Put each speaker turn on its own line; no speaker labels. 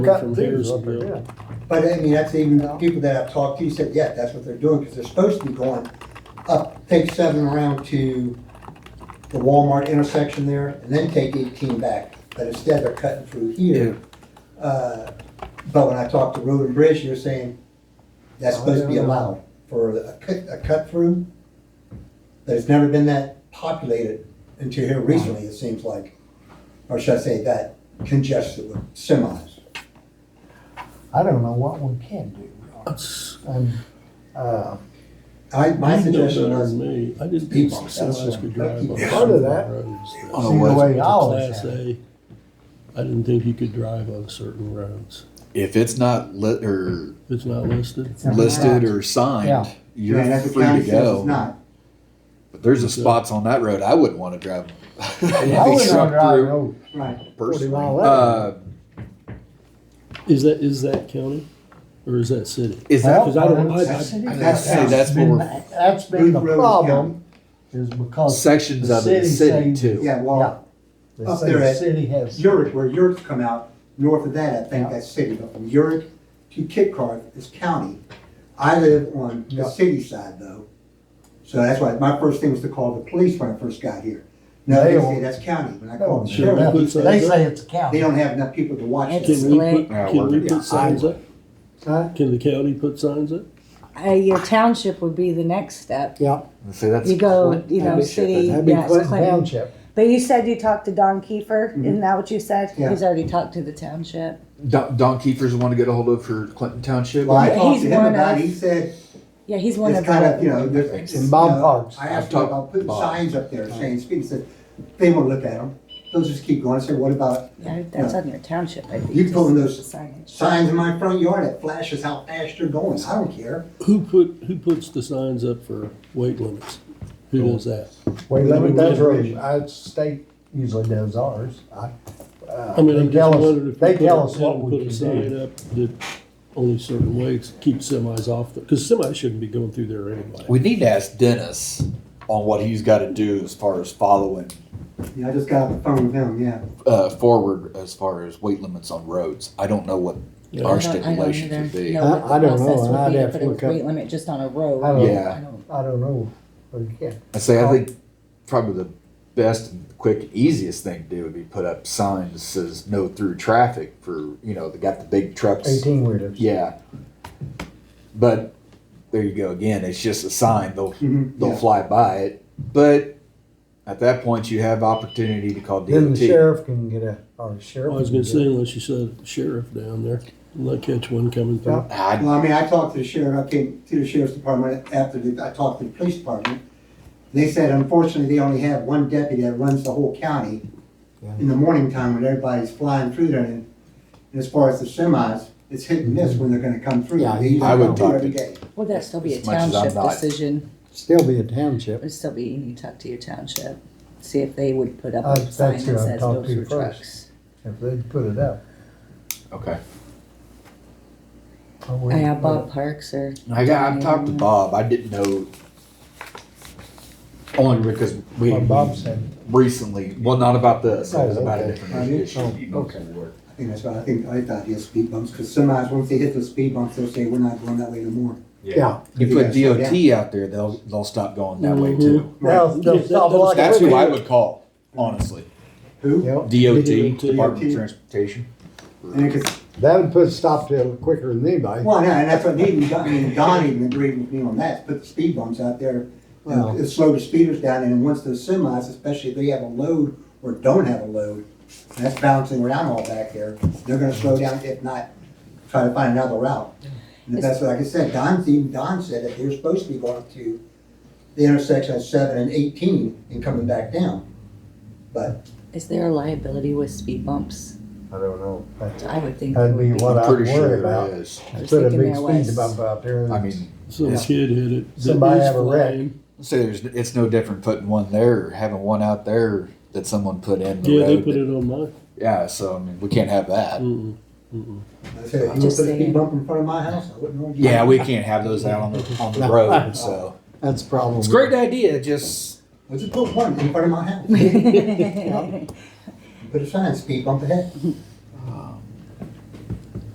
Cut
years
theirs up there,
ago.
yeah.
But I mean, that's even people that I've talked to said, yeah, that's what they're doing, because they're supposed to be going up, take seven around to the Walmart intersection there, and then take eighteen back, but instead they're cutting through here. Uh, But when I talked to Road and Bridge, you're saying that's supposed to be allowed for a cut, a cut through. But it's never been that populated until here recently, it seems like, or should I say that congested with semis.
I don't know what we can do. And, uh,
I,
You
my
know
suggestion
better
was
than me. I just
People.
keep Alaska Drive on
Part of
certain
that-
roads.
On a
see the
west-
way
It's
I
a
always
Class
have. it.
A. I didn't think you could drive on certain roads.
If it's not lit or
If It's not listed.
Something
listed
like
or signed,
Yeah.
you're
Yeah, that's what
free
county
to
says It's
go.
not.
But there's a
So-
spots on that road I wouldn't want to drive.
that. I
I
wouldn't drive no
Right.
forty
Personally,
mile
uh,
an
Is that, is that county or is that city?
is that?
hour.
I don't- I- I-
That's-
I didn't
That's-
say that's what we're-
That's been the
Booth Road is
problem, is because
sections
The
of it, the
city
city
say-
too.
Yeah, well,
they
Up
say
there
the
at
city has,
Urick, where Urick's come out, north of that, I think
Yeah.
that's city, but from Urick to Kit Car is county. I live on
Yeah.
the city side though, so that's why, my first thing was to call the police when I first got here. Now
They
they
won't-
say that's county, when I
no,
called
one
the
should have.
sheriff, he said,
they say it's a
they
county.
don't have enough people to watch
It's
it.
Can we put,
split.
Yeah,
can
we're
we
gonna-
put signs up?
Huh?
Can the county put signs up?
Uh, your township would be the next step.
Yeah,
Say that's
You go,
Clinton.
you know,
That'd be shit,
city,
that'd
that'd be
yeah, it's
Clinton
Clinton.
Township.
But you said you talked to Don Kiefer,
Mm-hmm.
isn't that what you said?
Yeah.
He's already talked to the township.
be- Don, Don Kiefer's the one to get a hold of for Clinton Township.
Well, I
He's
talked to him
one
about,
of-
it. he said,
Yeah, he's one of
it's kind of, you
the,
know, there's.
And Bob
you know,
Parks.
I asked him
Talk-
about putting
Bob.
signs up there saying speed, he said, they won't look at them, they'll just keep going, I said, what about
yeah, that's
Yeah.
on your township, I think.
You
just
pulling those-
signage.
signs in my front yard that flashes how fast you're going. I don't care.
Who put, who puts the signs up for weight limits? Who does that?
Wait, let me,
Road
that's
and
road,
bridge.
I, state usually does ours, I, uh,
I mean, I
they
just
tell
wondered if
us,
we
they
put
tell
a-
us what
had
we
Put a
can
sign
do.
up that only certain ways keep semis off, because semis shouldn't be going through there anyway.
We need to ask Dennis on what he's got to do as far as following
Yeah, I just got off the phone with him. Yeah.
uh, forward as far as weight limits on roads. I don't know what
Yeah.
our
I don't- I don't
stipulations
either
would be.
know what the
I- I don't know,
process would
I'd
be
have to
put a
look up-
Weight limit just on a road.
I don't-
Yeah.
I don't-
I don't know, but yeah,
I say I think probably the best, and quick, easiest thing to do would be put up signs that says no through traffic for you know they got the big trucks.
eighteen wheelers.
Yeah, but there you go again. It's just a sign. They'll
Mm-hmm.
Mhm.
they'll
Yeah.
fly by it, but at that point you have opportunity to call DOT.
Then the sheriff can get a, or sheriff.
I was
can
gonna
get
say
a-
unless you said sheriff down there, and they catch one coming through.
I,
Well, I mean, I talked to the sheriff. I came to the sheriff's department after the, I talked to the police department. They said, unfortunately, they only have one deputy that runs the whole county in the morning time when everybody's flying through there. And, and as far as the semis, it's hit and miss when they're going to come through.
Yeah,
they usually
I would
come through
talk
every
to-
day.
Well, that'd still be a
As much as I'm
township
not-
decision.
Still be a township.
It'd still be, you need to talk to your township, see if they would put up
Uh,
a sign
that's who
that
I'd
says
talk
no
to
through
first.
trucks.
If they'd put it up.
okay.
I
I
wouldn't
have
put
Uh, Bob Parks or
I got, I've talked to Bob. I didn't know only because we
it. What Bob said.
recently. Well, not about this. It was
Oh,
about
okay.
a different
Oh,
issue.
okay.
I think that's why I think I thought he had speed bumps because semis, once they hit the speed bumps, they'll say, we're not going that way no more.
Yeah.
You
Yeah,
put
so,
DOT out there, they'll they'll stop going that way
Mhm.
too.
They'll, they'll
Yeah,
stop
that-
like.
That's
we
who I
do.
would call, honestly.
Who?
Yep.
DOT,
DOT.
Department of Transportation.
And it could
That would put a stop to it quicker than anybody.
Well, no, and that's what Needham, I mean, Don even agreed with me on that, put the speed bumps out there.
Well-
And it slowed the speeders down, and then once those semis, especially if they have a load or don't have a load, and that's bouncing around all back there, they're gonna slow down, if not, try to find another route. And if that's what, like I said, Don's even, Don said that they were supposed to be going to the intersection of seven and eighteen and coming back down. But,
Is there a liability with speed bumps?
I don't know. That-
I would think.
That'd
there
be
would
what
I'm
I
pretty
would worry
sure
about.
it is.
I was
Put a
thinking
big
there
speed
was.
bump out there.
I mean,
Some
Yeah.
kid hit it. that
Somebody
is
have a wreck.
flying.
say there's it's no different putting one there or having one out there that someone put in the
Yeah, they
road.
put it Mm. on mine.
yeah, so I mean, we can't have that.
Mm-mm, mm-mm.
like I said, if you would
Just
put a
saying.
speed bump in front of my house, I wouldn't argue.
Yeah, we can't have those out on the on the road. So
That's a problem.
it's a great idea. Just
Would you put one in front of my house? Put a sign, speed bump ahead.